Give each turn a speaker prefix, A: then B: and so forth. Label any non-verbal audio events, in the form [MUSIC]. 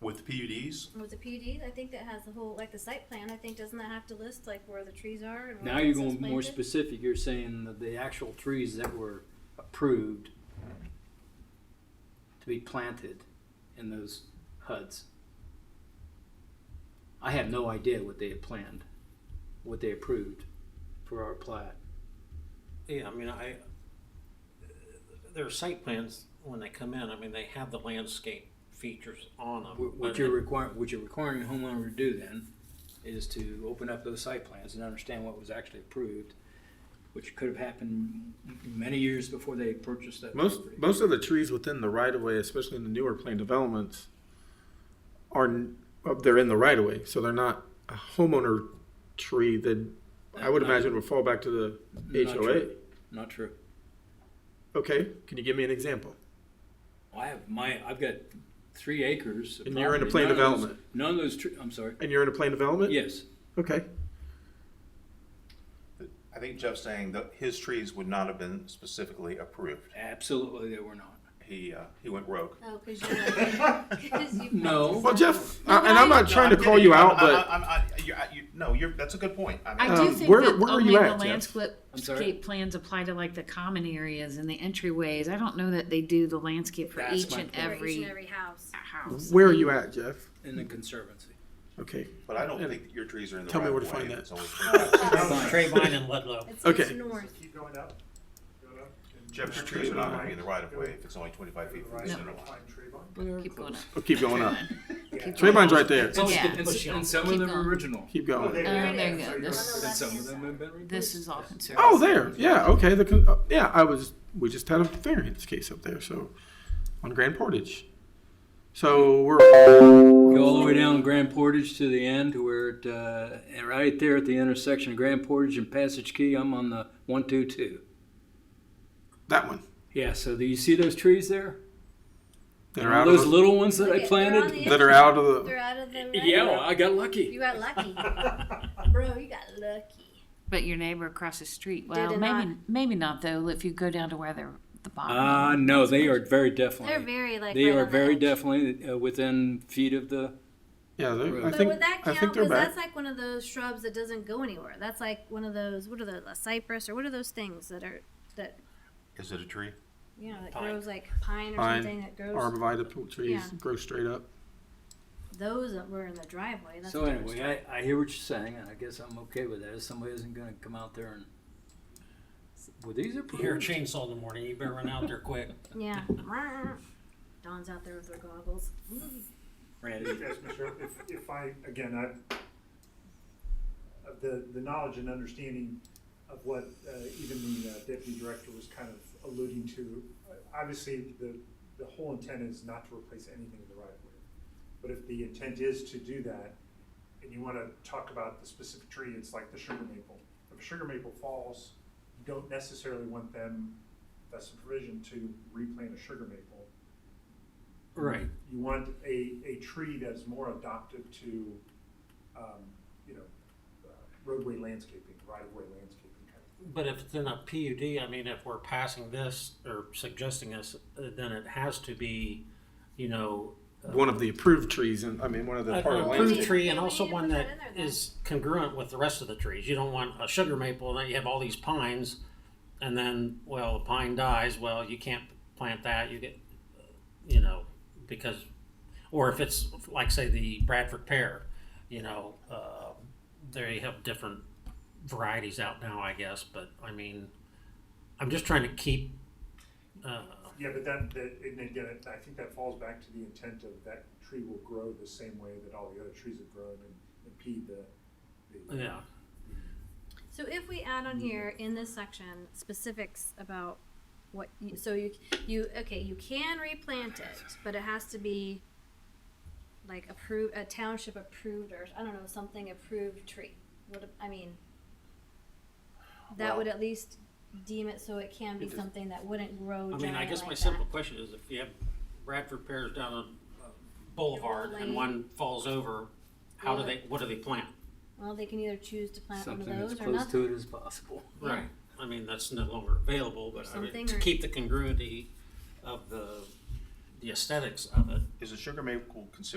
A: with PUDs?
B: With the PUD, I think that has the whole, like the site plan, I think, doesn't that have to list like where the trees are and where
C: Now you're
B: it's
C: going more
B: planted?
C: specific, you're saying that the actual trees that were approved to be planted in those HUDs. I have no idea what they had planned, what they approved for our plat.
D: Yeah, I mean, I, their site plans, when they come in, I mean, they have the landscape features on
E: Um,
D: them.
C: What
D: but
C: what you're requiring, what you're requiring a homeowner to do then is to open up those site plans and understand what was actually approved, which could have happened many years before they purchased that
E: Most
C: property.
E: most of the trees within the right of way, especially in the newer planned developments, are n- well, they're in the right of way, so they're not a homeowner tree that I would
C: Not-
E: imagine would fall back to the
C: not
E: HOA.
C: true. Not true.
E: Okay, can you give me an example?
C: I have my, I've got three acres. of
E: And you're in a
C: property.
E: planned
C: None of those-
E: development.
C: None of those, tr- I'm sorry,
E: And you're in a planned development.
C: yes,
E: Okay.
A: I think Jeff's saying that his trees would not have been specifically approved.
C: absolutely, they were not.
A: He, uh, he went
F: [LAUGHS]
A: rogue.
B: Oh, cause you. [LAUGHS] 'cause you
C: No.
B: practice
E: Well,
B: that.
E: Jeff, I, and I'm not trying to call you out, but
A: I'm, I, I, you, I, you, no, you're, that's a good point. I mean,
F: I do
E: Um,
F: think
E: where-
F: that
E: where are
F: only
E: you
F: the
E: at, Jeff?
C: I'm sorry?
F: landscape plans apply to like the common areas and the entryways. I don't know that they do the landscape for
C: That's
F: each
C: my
F: and
C: point.
B: For each and
F: every
B: every house.
F: house.
E: where are you at, Jeff?
C: In the conservancy.
E: Okay.
A: but I don't think that your trees are in the
E: Tell me
A: right
E: where to
A: of
E: find
A: way.
E: that.
A: It's always been-
D: Trayvine and Ludlow.
B: It's, it's
E: Okay.
B: north.
G: Keep going up, going up. and-
A: Jeff's trees are not gonna be in the right of way if it's only twenty-five feet from the center line.
G: Find tree line.
F: Keep going up.
E: I'll keep going up.
C: [LAUGHS]
F: Keep going
E: Trayvine's
F: up.
E: right there.
F: It's- Yeah.
C: And s- and some of
F: Keep
C: them are
F: going.
C: original,
E: Keep
G: Oh,
E: going.
F: Uh,
G: it
F: there you
G: is.
F: go.
G: So you're
F: This-
G: right.
C: and some of them have been replaced.
F: This is all conservative.
E: Oh, there. Yeah. Okay. The con- uh, yeah. I was. We just had a variance case up there. So on Grand Portage. So we're
C: Go all the way down Grand Portage to the end where it, uh, and right there at the intersection of Grand Portage and Passage Key, I'm on the one, two, two.
E: that one.
C: Yeah, so do you see those trees there?
E: That are
C: All
E: out of
C: those
E: the,
C: little ones that
B: Look
C: I
B: at- they're on
C: planted?
B: the
E: that are
B: edge.
E: out of the.
B: They're out of the. right
C: Yeah,
B: now.
C: I got lucky.
B: You got
C: [LAUGHS]
D: [LAUGHS]
B: lucky. Bro, you got lucky.
F: But your neighbor across the street, well,
B: it
F: maybe
B: not.
F: maybe not though. If you go down to where they're the bottom.
C: Uh, no, they are very
B: They're
C: definitely,
B: very like.
C: they
B: right
C: are
B: on the
C: very
B: edge.
C: definitely uh, within feet of the,
E: Yeah. they- I
C: But
B: But
E: think.
B: would that
E: I
B: count?
E: think they're
B: Because
E: back.
B: that's like one of those shrubs that doesn't go anywhere. That's like one of those. What are those? A cypress or what are those things that are that
A: Is it a tree?
B: you know that
D: Pine.
B: grows like pine or
E: Pine,
B: something that grows.
E: Arborvitae pl- trees
B: Yeah.
E: grow straight up.
B: Those that were in the driveway. That's a
C: so
B: different
C: anyway, I, I hear what you're saying and I guess I'm okay with that. If somebody isn't gonna come out there and, well, these are
D: You hear a
C: pretty. [LAUGHS]
D: chainsaw in the morning, you better run out there quick.
B: story. Yeah. [LAUGHS] Dawn's out there with her goggles.
C: Randy,
G: Yes, Mr. Earp, If, if I, again, I, of the, the knowledge and understanding of what, uh, even the uh, deputy director was kind of alluding to, uh, obviously, the, the whole intent is not to replace anything in the right of way. But if the intent is to do that, and you wanna talk about the specific tree, it's like the sugar maple. If a sugar maple falls, you don't necessarily want them, that's the provision, to replant a sugar maple.
C: right.
G: You want a, a tree that's more adaptive to, um, you know, uh, roadway landscaping, right-of-way landscaping kind of.
D: But if it's in a PUD, I mean, if we're passing this or suggesting this, uh, then it has to be, you know,
E: One of the approved trees, and I mean one of the
D: a
E: part of
B: well,
E: the
B: we-
D: Uh, approved
E: landscape.
D: tree
B: we
D: and also
B: need to
D: one
B: put
D: that
B: that in there then.
D: is congruent with the rest of the trees. You don't want a sugar maple and then you have all these pines and then, well, the pine dies, well, you can't plant that, you get, you know, because, or if it's like, say, the Bradford pear, you know, uh, they have different varieties out now, I guess, but I mean, I'm just trying to keep, uh,
G: Yeah, but that, that, and again, it- I think that falls back to the intent of that tree will grow the same way that all the other trees have grown and impede the, the.
D: yeah.
B: So if we add on here in this section specifics about what you, so you you okay you can replant it, but it has to be like approved a township approved or I don't know something approved tree. What I mean that would at least deem it so it can be
D: It is-
B: something that wouldn't grow.
D: I mean, I
B: giant
D: guess
B: like
D: my
B: Oh, that.
D: simple question is if you have Bradford pears down on uh, Boulevard and
B: Lane.
D: one falls over, how do
B: Yeah.
D: they, what do they plant?
B: Well, they can either choose to plant one of
C: Something as
B: those or
C: close to
B: nothing.
C: it as possible.
D: Right. I mean, that's no longer available, but I mean,
B: Something
D: to
B: or-
D: keep the congruity of the, the aesthetics of it.
A: Is a sugar maple considered